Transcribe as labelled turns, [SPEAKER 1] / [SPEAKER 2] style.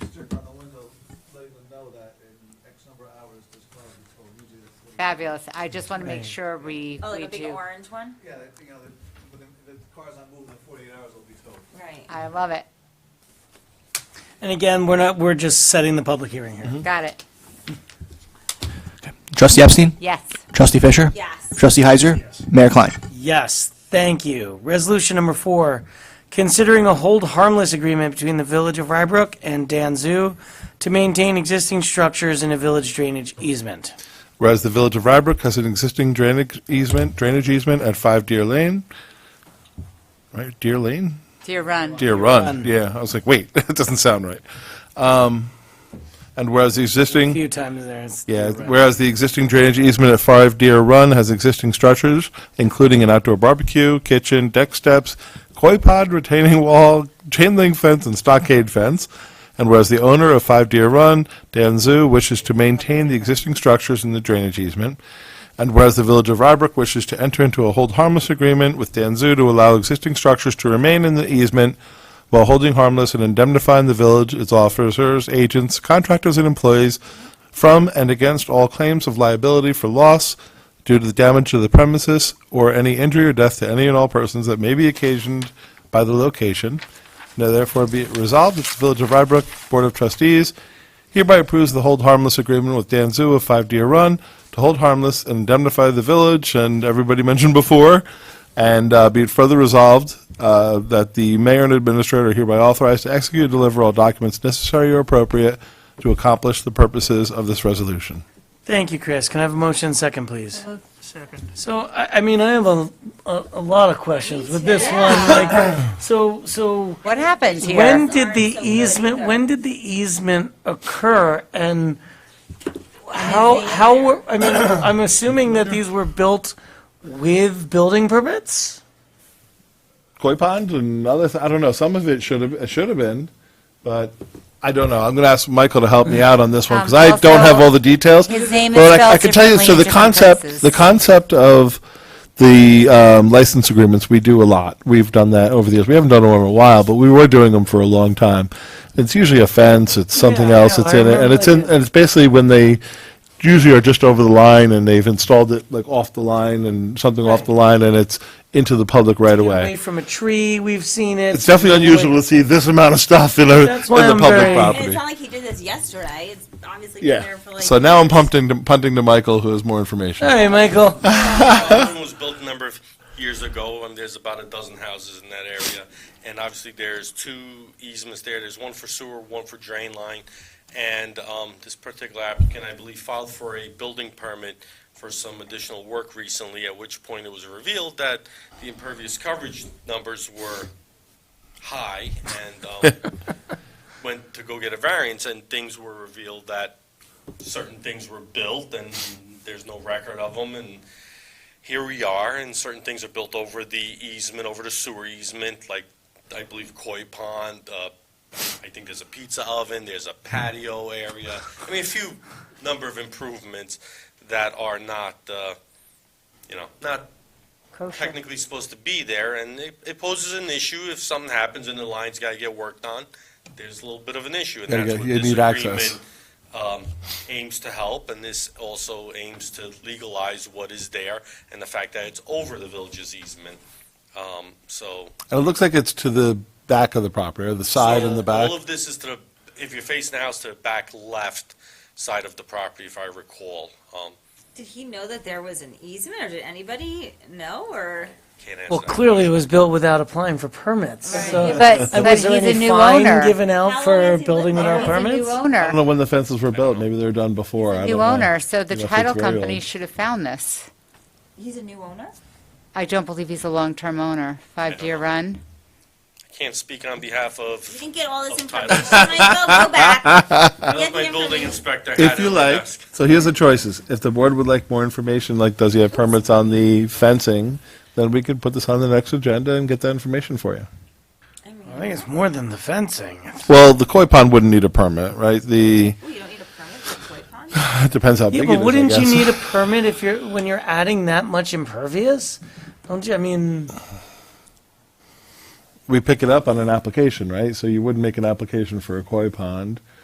[SPEAKER 1] number of hours this car would be towed, usually that's. what-
[SPEAKER 2] Fabulous. I just want to make
[SPEAKER 3] Right.
[SPEAKER 2] sure we,
[SPEAKER 4] Oh, like
[SPEAKER 2] we
[SPEAKER 4] a big
[SPEAKER 2] do.
[SPEAKER 4] orange one?
[SPEAKER 1] Yeah, that, you know, the, when the, the car's not moving, in forty-eight hours will be towed.
[SPEAKER 4] Right.
[SPEAKER 2] I love it.
[SPEAKER 3] And again, we're not, we're just setting the public hearing here.
[SPEAKER 2] Got it.
[SPEAKER 5] Trustee Epstein?
[SPEAKER 2] Yes.
[SPEAKER 5] Trustee Fisher?
[SPEAKER 4] Yes.
[SPEAKER 5] Trustee Heiser? Mayor Klein?
[SPEAKER 3] Yes, thank you. Resolution number four, considering a hold harmless agreement between the Village of Rybrook and Dan Zoo to maintain existing structures in a village drainage easement.
[SPEAKER 6] Whereas the Village of Rybrook has an existing drainage easement, drainage easement at Five Deer Lane. Right, Deer Lane?
[SPEAKER 2] Dear Run.
[SPEAKER 6] Deer Run, yeah. I was like, wait, that doesn't sound right. Um, And whereas the
[SPEAKER 3] A
[SPEAKER 6] existing.
[SPEAKER 3] few times there. it's-
[SPEAKER 6] Yeah, whereas the existing drainage easement at Five Deer Run has existing structures, including an outdoor barbecue, kitchen, deck steps, koi pod, retaining wall, chain link fence, and stockade fence. And whereas the owner of Five Deer Run, Dan Zoo, wishes to maintain the existing structures in the drainage easement. And whereas the Village of Rybrook wishes to enter into a hold harmless agreement with Dan Zoo to allow existing structures to remain in the easement while holding harmless and indemnifying the village, its officers, agents, contractors, and employees from and against all claims of liability for loss due to the damage to the premises or any injury or death to any and all persons that may be occasioned by the location. Now therefore be it resolved that the Village of Rybrook Board of Trustees hereby approves the hold harmless agreement with Dan Zoo of Five Deer Run to hold harmless and indemnify the village and everybody mentioned before. And uh, be it further resolved uh, that the mayor and administrator are hereby authorized to execute and deliver all documents necessary or appropriate to accomplish the purposes of this resolution.
[SPEAKER 3] Thank you, Chris. Can I have a motion second, please? Second. So, I, I mean, I have a, a, a lot of questions with this one, like, so, so
[SPEAKER 2] What happened here?
[SPEAKER 3] when did
[SPEAKER 4] Aren't
[SPEAKER 3] the
[SPEAKER 4] so good
[SPEAKER 3] easement,
[SPEAKER 4] either.
[SPEAKER 3] when did the easement occur and how, how were, I mean, I'm assuming that these were built with building permits?
[SPEAKER 6] Koi pond and other, th- I don't know, some of it should have, it should have been, but I don't know. I'm going to ask Michael to help me out on this one because
[SPEAKER 2] Um,
[SPEAKER 6] I
[SPEAKER 2] also,
[SPEAKER 6] don't have all the details.
[SPEAKER 2] his name is
[SPEAKER 6] But I- I
[SPEAKER 2] spelled
[SPEAKER 6] can tell you,
[SPEAKER 2] differently
[SPEAKER 6] so the
[SPEAKER 2] in different
[SPEAKER 6] concept,
[SPEAKER 2] places.
[SPEAKER 6] the concept of the um, license agreements, we do a lot. We've done that over the years. We haven't done one in a while, but we were doing them for a long time. It's usually a fence, it's something
[SPEAKER 3] Yeah, I
[SPEAKER 6] else
[SPEAKER 3] know.
[SPEAKER 6] that's
[SPEAKER 3] I
[SPEAKER 6] in it, and
[SPEAKER 3] remember
[SPEAKER 6] it's in,
[SPEAKER 3] it.
[SPEAKER 6] and it's basically when they usually are just over the line and they've installed it like off the line and something off
[SPEAKER 3] Right.
[SPEAKER 6] the line and it's into the public right away.
[SPEAKER 3] Away from a tree, we've seen it.
[SPEAKER 6] It's definitely unusual to see this amount of stuff in a, in
[SPEAKER 3] That's why
[SPEAKER 6] the
[SPEAKER 3] I'm
[SPEAKER 6] public
[SPEAKER 3] very-
[SPEAKER 4] And it's
[SPEAKER 6] property.
[SPEAKER 4] not like he did this yesterday. It's obviously been
[SPEAKER 6] Yeah.
[SPEAKER 4] there for like.
[SPEAKER 6] So now I'm punting, to- punting to Michael, who has more information.
[SPEAKER 3] Hey, Michael.
[SPEAKER 7] That one was built a number of years ago, and there's about a dozen houses in that area. And obviously, there's two easements there. There's one for sewer, one for drain line. And um, this particular applicant, I believe, filed for a building permit for some additional work recently, at which point it was revealed that the impervious coverage numbers were high and um, went to go get a variance, and things were revealed that certain things were built and there's no record of them, and here we are, and certain things are built over the easement, over the sewer easement, like, I believe koi pond, uh, I think there's a pizza oven, there's a patio area. I mean, a few number of improvements that are not, uh, you know, not technically supposed to be there, and it, it poses an issue if something happens and the line's gotta get worked on. There's a little bit of an issue, and
[SPEAKER 6] There you
[SPEAKER 7] that's
[SPEAKER 6] go.
[SPEAKER 7] what
[SPEAKER 6] You
[SPEAKER 7] this
[SPEAKER 6] need access.
[SPEAKER 7] agreement, um, aims to help, and this also aims to legalize what is there, and the fact that it's over the village's easement, um, so.
[SPEAKER 6] And it looks like it's to the back of the property, or the side and the
[SPEAKER 7] So
[SPEAKER 6] back.
[SPEAKER 7] All of this is to, the if you're facing the house, to the back left side of the property, if I recall, um,
[SPEAKER 4] Did he know that there was an easement or did anybody know or?
[SPEAKER 7] can't answer that.
[SPEAKER 3] Well, clearly it was built without applying for permits,
[SPEAKER 4] Right.
[SPEAKER 3] so.
[SPEAKER 2] But,
[SPEAKER 3] And
[SPEAKER 2] but
[SPEAKER 3] Uh, was
[SPEAKER 2] he's
[SPEAKER 3] there
[SPEAKER 2] a
[SPEAKER 3] any
[SPEAKER 2] new
[SPEAKER 3] fine
[SPEAKER 2] owner.
[SPEAKER 3] given
[SPEAKER 4] How
[SPEAKER 3] out
[SPEAKER 4] long
[SPEAKER 3] for
[SPEAKER 4] has he
[SPEAKER 3] building
[SPEAKER 4] lived
[SPEAKER 2] He's
[SPEAKER 4] there?
[SPEAKER 3] without
[SPEAKER 2] a
[SPEAKER 3] permits?
[SPEAKER 2] new
[SPEAKER 6] I don't know
[SPEAKER 2] owner.
[SPEAKER 6] when the fences were built. Maybe they were done before. I don't
[SPEAKER 2] New
[SPEAKER 6] know.
[SPEAKER 2] owner, so the
[SPEAKER 6] You know, if it's
[SPEAKER 2] title
[SPEAKER 6] very
[SPEAKER 2] company
[SPEAKER 6] old.
[SPEAKER 2] should have found this.
[SPEAKER 4] He's a new owner?
[SPEAKER 2] I don't believe he's a long-term owner. Five Deer Run.
[SPEAKER 7] I Can't speak on behalf
[SPEAKER 4] You
[SPEAKER 7] of,
[SPEAKER 4] didn't get all this
[SPEAKER 7] Oh, Tyler.
[SPEAKER 4] information. Michael, go back.
[SPEAKER 7] unless
[SPEAKER 4] the
[SPEAKER 7] my building
[SPEAKER 4] information.
[SPEAKER 7] inspector had it
[SPEAKER 6] If you
[SPEAKER 7] on my
[SPEAKER 6] like,
[SPEAKER 7] desk.
[SPEAKER 6] so here's the choices. If the board would like more information, like does he have permits on the fencing, then we could put this on the next agenda and get that information for you.
[SPEAKER 4] I mean,
[SPEAKER 3] I think it's more than the fencing.
[SPEAKER 6] Well, the koi pond wouldn't need a permit, right? The,
[SPEAKER 4] ooh, you don't need a permit for a koi pond?
[SPEAKER 6] it depends how
[SPEAKER 3] Yeah,
[SPEAKER 6] big it is,
[SPEAKER 3] but
[SPEAKER 6] I
[SPEAKER 3] wouldn't you
[SPEAKER 6] guess.
[SPEAKER 3] need a permit if you're, when you're adding that much impervious? Don't you, I mean,
[SPEAKER 6] We pick it up on an application, right? So you wouldn't make an application for a koi pond.